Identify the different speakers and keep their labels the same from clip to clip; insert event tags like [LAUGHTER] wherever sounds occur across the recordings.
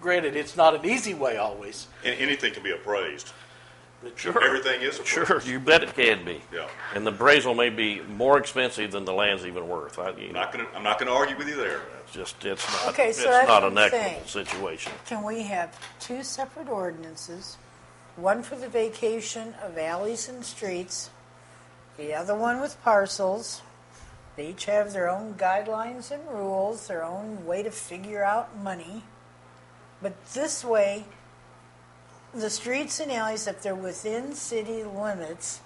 Speaker 1: granted, it's not an easy way always.
Speaker 2: And anything can be appraised.
Speaker 1: but-
Speaker 3: Sure.
Speaker 2: Everything is appraised.
Speaker 3: Sure, you bet it can be.
Speaker 2: Yeah.
Speaker 3: And the appraisal may be more expensive than the land's even worth. I, you
Speaker 2: I'm
Speaker 3: know,
Speaker 2: not gonna, I'm not gonna argue with you there.
Speaker 3: it's just, it's not,
Speaker 4: Okay,
Speaker 3: it's
Speaker 4: so that's
Speaker 3: not
Speaker 4: what
Speaker 3: an
Speaker 4: I'm
Speaker 3: equitable situation.
Speaker 4: Can we have two separate ordinances? One for the vacation of alleys and streets, the other one with parcels. They each have their own guidelines and rules, their own way to figure out money. But this way, the streets and alleys, if they're within city limits,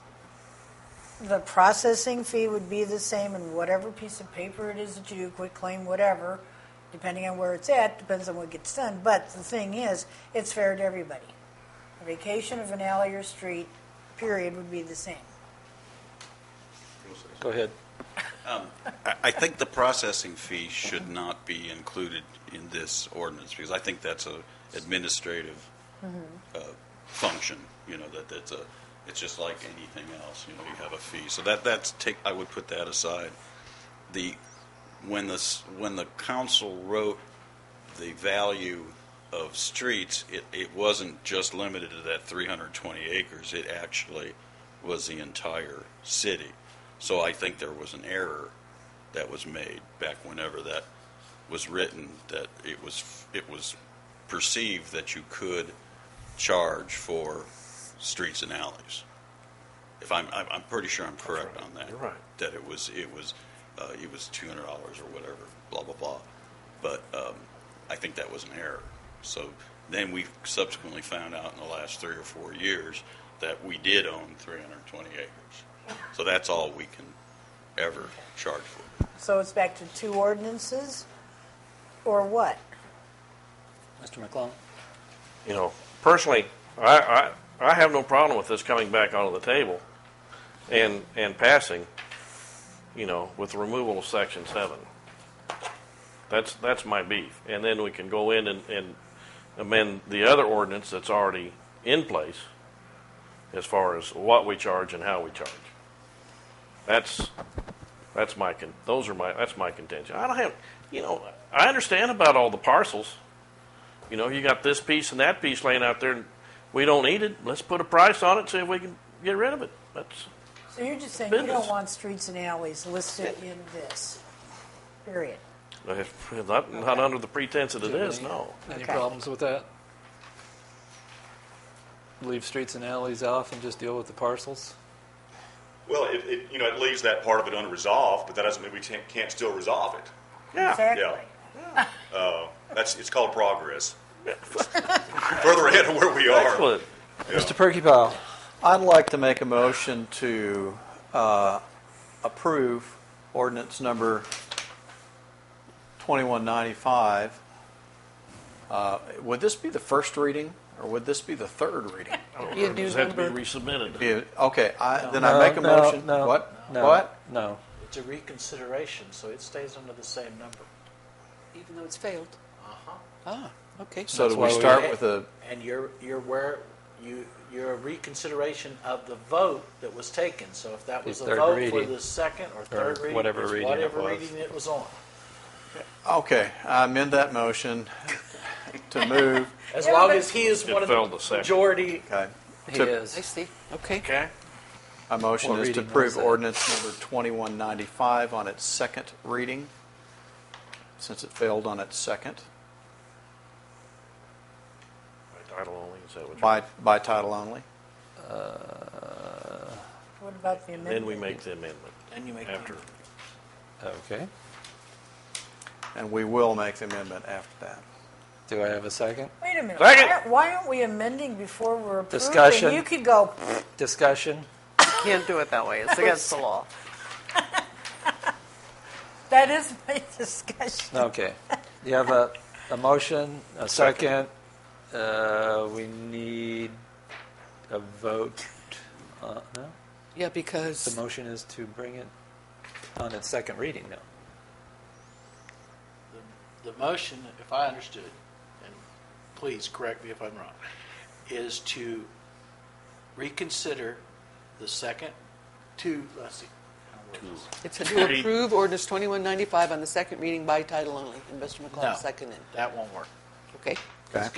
Speaker 4: the processing fee would be the same and whatever piece of paper it is that you do, quit claim, whatever, depending on where it's at, depends on what gets done. But the thing is, it's fair to everybody. A vacation of an alley or street, period, would be the same.
Speaker 5: Go ahead.
Speaker 6: I- I think the processing fee should not be included in this ordinance, because I think that's a administrative uh, function, you know, that that's a, it's just like anything else, you know, you have a fee. So that, that's take, I would put that aside. The, when the, s- when the council wrote the value of streets, it, it wasn't just limited to that 320 acres, it actually was the entire city. So I think there was an error that was made back whenever that was written, that it was, it was perceived that you could charge for streets and alleys. If I'm, I'm, I'm pretty sure I'm correct on that.
Speaker 3: You're right.
Speaker 6: That it was, it was, uh, it was two hundred dollars or whatever, blah, blah, blah. But, um, I think that was an error. So then we subsequently found out in the last three or four years that we did own three hundred and twenty acres. So that's all we can ever charge for.
Speaker 4: So it's back to two ordinances, or what?
Speaker 5: Mr. McClellan?
Speaker 3: You know, personally, I, I, I have no problem with this coming back onto the table and, and passing, you know, with the removal of section seven. That's, that's my beef. And then we can go in and, and amend the other ordinance that's already in place as far as what we charge and how we charge. That's, that's my con, those are my, that's my contention. I don't have, you know, I understand about all the parcels. You know, you got this piece and that piece laying out there, and we don't need it. Let's put a price on it, see if we can get rid of it. That's
Speaker 4: So you're just saying you don't
Speaker 3: Business.
Speaker 4: want streets and alleys listed in this, period.
Speaker 3: not, not under the pretense that it is,
Speaker 5: Any-
Speaker 3: no.
Speaker 5: Any
Speaker 4: Okay.
Speaker 5: problems with that? Leave streets and alleys off and just deal with the parcels?
Speaker 2: Well, it, it, you know, it leaves that part of it unresolved, but that doesn't mean we can't, can't still resolve it.
Speaker 3: Yeah,
Speaker 4: Exactly.
Speaker 2: That's, it's called
Speaker 3: [LAUGHS]
Speaker 2: progress. Further ahead of where we are.
Speaker 3: excellent.
Speaker 5: Mr.
Speaker 2: Mr.
Speaker 5: Perky Powell, I'd like to make a motion to uh, approve ordinance number 2195. Uh, Would this be the first reading, or would this be the third [LAUGHS] reading?
Speaker 7: You do
Speaker 3: Does that have to
Speaker 7: number,
Speaker 3: be resubmitted?
Speaker 5: Yeah, Okay, I- then I make a
Speaker 8: No, no,
Speaker 5: motion.
Speaker 8: no,
Speaker 5: What?
Speaker 8: no,
Speaker 5: What?
Speaker 8: No.
Speaker 9: It's a reconsideration, so it stays under the same number.
Speaker 7: even though it's failed? Uh-huh. Ah, okay.
Speaker 5: So do
Speaker 8: That's
Speaker 5: we
Speaker 8: why we- [LAUGHS]
Speaker 5: start with a,
Speaker 9: And you're, you're where, you, you're a reconsideration of the vote that was taken. So if that was
Speaker 8: The
Speaker 9: a
Speaker 8: third
Speaker 9: vote for
Speaker 8: reading.
Speaker 9: the second or third reading,
Speaker 8: whatever
Speaker 9: it's
Speaker 8: reading it
Speaker 9: whatever
Speaker 8: was.
Speaker 9: reading it was on.
Speaker 5: okay, I amend that motion to move,
Speaker 9: As long as he is
Speaker 3: It
Speaker 9: one of
Speaker 3: failed the
Speaker 9: the
Speaker 3: second.
Speaker 9: majority
Speaker 5: okay.
Speaker 8: He
Speaker 5: to-
Speaker 8: is.
Speaker 7: I see. Okay.
Speaker 3: Okay.
Speaker 5: My motion
Speaker 8: What
Speaker 5: is to
Speaker 8: reading was
Speaker 5: approve
Speaker 8: that?
Speaker 5: ordinance number 2195 on its second reading, since it failed on its second,
Speaker 3: By title only, is that what you-
Speaker 5: by, by title only.
Speaker 4: What about the amendment?
Speaker 3: Then we make the amendment.
Speaker 9: Then you make the
Speaker 3: After,
Speaker 8: Okay.
Speaker 5: And we will make the amendment after that.
Speaker 8: Do I have a second?
Speaker 4: Wait a minute.
Speaker 3: Second.
Speaker 4: Why, aren't- why aren't we amending before we're approving?
Speaker 8: Discussion.
Speaker 4: You could go,
Speaker 8: Discussion?
Speaker 7: Can't do it that way. It's
Speaker 3: [LAUGHS]
Speaker 7: against the law.
Speaker 4: that is my [LAUGHS] discussion.
Speaker 8: Okay. You have a, a motion, a second. Uh, we need a vote. Uh, no?
Speaker 7: Yeah,
Speaker 8: The
Speaker 7: because
Speaker 8: motion is to bring it on its second reading now.
Speaker 9: The motion, if I understood, and please correct me if I'm wrong, is to reconsider the second two, let's see. I don't know what it is.
Speaker 7: it's to approve ordinance 2195 on the second reading by title only, and Mr.
Speaker 9: No,
Speaker 7: McClellan seconded.
Speaker 9: That won't work.
Speaker 7: Okay.
Speaker 5: Okay.